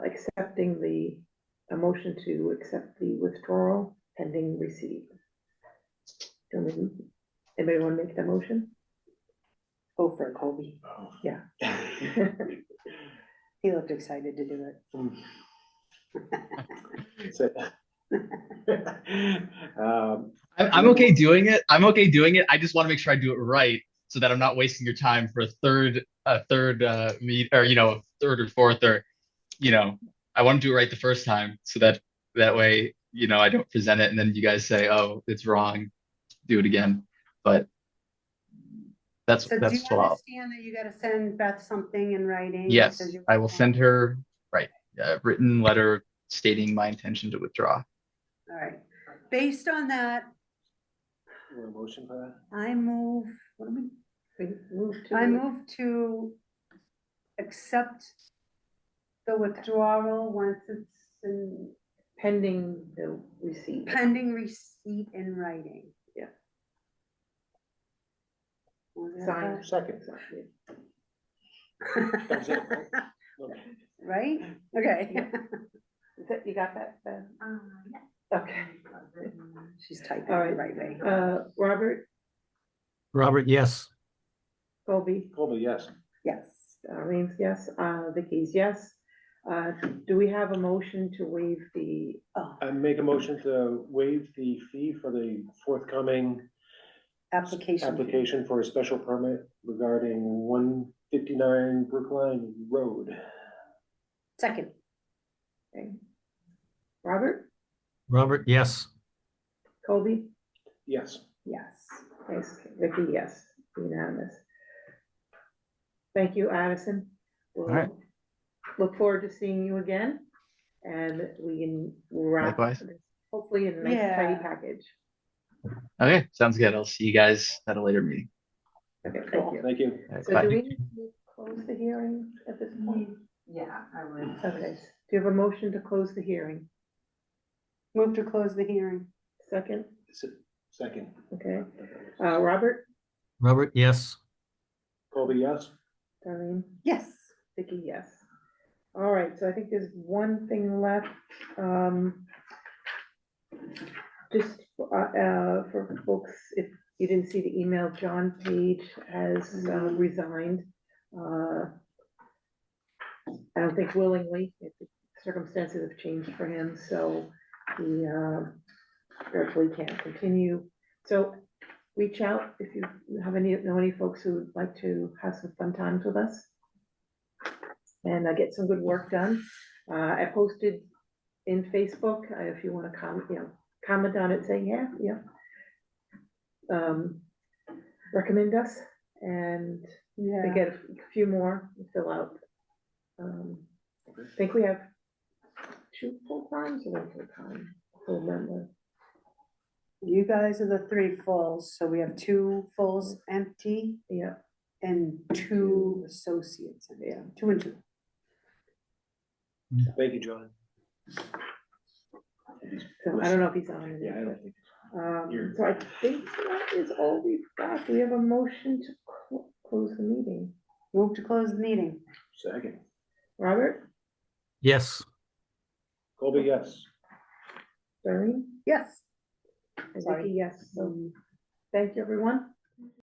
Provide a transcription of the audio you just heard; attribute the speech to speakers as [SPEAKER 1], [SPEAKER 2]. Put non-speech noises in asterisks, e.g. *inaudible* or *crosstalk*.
[SPEAKER 1] accepting the, a motion to accept the withdrawal pending receipt. Don't we- Anybody wanna make the motion?
[SPEAKER 2] Go Oh, for it, Colby.
[SPEAKER 3] *laughs*
[SPEAKER 1] Yeah.
[SPEAKER 3] Um,
[SPEAKER 2] He looked excited to do it.
[SPEAKER 3] So- Um,
[SPEAKER 4] I'm, I'm okay doing it. I'm okay doing it. I just want to make sure I do it right so that I'm not wasting your time for a third, a third, uh, meet or, you know, third or fourth or, you know, I want to do it right the first time so that that way, you know, I don't present it and then you guys say, oh, it's wrong, do it again. But that's,
[SPEAKER 2] So do you
[SPEAKER 4] that's what I'll,
[SPEAKER 2] understand that you gotta send Beth something in writing? that
[SPEAKER 4] yes,
[SPEAKER 2] says you-
[SPEAKER 4] I will send her, right, a written letter stating my intention to withdraw.
[SPEAKER 2] All right. Based on that,
[SPEAKER 3] we're in motion for that?
[SPEAKER 2] I move, what am I?
[SPEAKER 1] We move to-
[SPEAKER 2] I move to accept the withdrawal once it's in
[SPEAKER 1] Pending the receipt.
[SPEAKER 2] pending receipt in writing.
[SPEAKER 1] Yeah.
[SPEAKER 2] Was that
[SPEAKER 1] Signed.
[SPEAKER 3] Second.
[SPEAKER 1] *laughs*
[SPEAKER 3] That's it, right? Okay.
[SPEAKER 2] *laughs* Right? Okay.
[SPEAKER 1] Yeah. Is that, you got that, Ben? Okay,
[SPEAKER 2] She's typing the
[SPEAKER 1] All right.
[SPEAKER 2] right way.
[SPEAKER 1] uh, Robert,
[SPEAKER 5] Robert, yes.
[SPEAKER 1] Colby,
[SPEAKER 3] Colby, yes.
[SPEAKER 2] Yes.
[SPEAKER 1] Arlene's yes, uh, Vicky's yes. Uh, do we have a motion to waive the,
[SPEAKER 2] Oh,
[SPEAKER 3] I make a motion to waive the fee for the forthcoming
[SPEAKER 2] application.
[SPEAKER 3] application for a special permit regarding one fifty-nine Brookline Road.
[SPEAKER 2] Second.
[SPEAKER 1] okay? eh, Robert,
[SPEAKER 5] Robert, yes.
[SPEAKER 1] Colby?
[SPEAKER 3] Yes.
[SPEAKER 2] Yes.
[SPEAKER 1] Yes, Vicky, yes, unanimous. Thank you, Addison. We'll
[SPEAKER 4] right.
[SPEAKER 1] Look forward to seeing you again, and we can wrap
[SPEAKER 4] Likewise.
[SPEAKER 1] this hopefully in a nice tidy
[SPEAKER 2] Yeah.
[SPEAKER 1] package.
[SPEAKER 4] Okay, sounds good. I'll see you guys at a later meeting.
[SPEAKER 1] Okay, thank you.
[SPEAKER 3] Thank you.
[SPEAKER 4] All right,
[SPEAKER 1] So
[SPEAKER 4] bye.
[SPEAKER 1] do we need to close the hearing at this point?
[SPEAKER 6] Yeah, I would.
[SPEAKER 3] Mm-hmm.
[SPEAKER 1] Okay, do you have a motion to close the hearing?
[SPEAKER 2] Move to close the hearing.
[SPEAKER 1] Second,
[SPEAKER 3] S- Second.
[SPEAKER 1] okay, uh, Robert,
[SPEAKER 5] Robert, yes.
[SPEAKER 3] Colby, yes?
[SPEAKER 1] Darlene?
[SPEAKER 2] Yes.
[SPEAKER 1] Vicky, yes. All right, so I think there's one thing left, um. Just, uh, uh, for folks, if you didn't see the email, John Page has uh, resigned. Uh, I don't think willingly, if the circumstances have changed for him, so he, uh, hopefully can't continue. So reach out if you have any, know any folks who would like to have some fun times with us and uh, get some good work done. Uh, I posted in Facebook, uh, if you wanna comment, you know, comment on it, say, yeah, yeah. Um, recommend us, and we
[SPEAKER 2] Yeah.
[SPEAKER 1] get a few more to fill out. Um, I think we have two full times or one full time, full member,
[SPEAKER 2] You guys are the three fulls, so we have two fulls empty
[SPEAKER 1] yeah,
[SPEAKER 2] and two associates. empty.
[SPEAKER 1] Yeah.
[SPEAKER 2] Two and two.
[SPEAKER 3] Thank you, John.
[SPEAKER 1] so I don't know if he's on. or not,
[SPEAKER 3] Yeah, I
[SPEAKER 1] but-
[SPEAKER 3] don't think.
[SPEAKER 1] Um,
[SPEAKER 3] Here.
[SPEAKER 1] so I think that is all we've got. We have a motion to clo- close the meeting.
[SPEAKER 2] Move to close the meeting.
[SPEAKER 3] Second.
[SPEAKER 1] Robert,
[SPEAKER 5] Yes.
[SPEAKER 3] Colby, yes.
[SPEAKER 1] Darlene,
[SPEAKER 2] Yes.
[SPEAKER 1] and
[SPEAKER 2] Sorry. Um,
[SPEAKER 1] Vicky, yes. So thank you, everyone.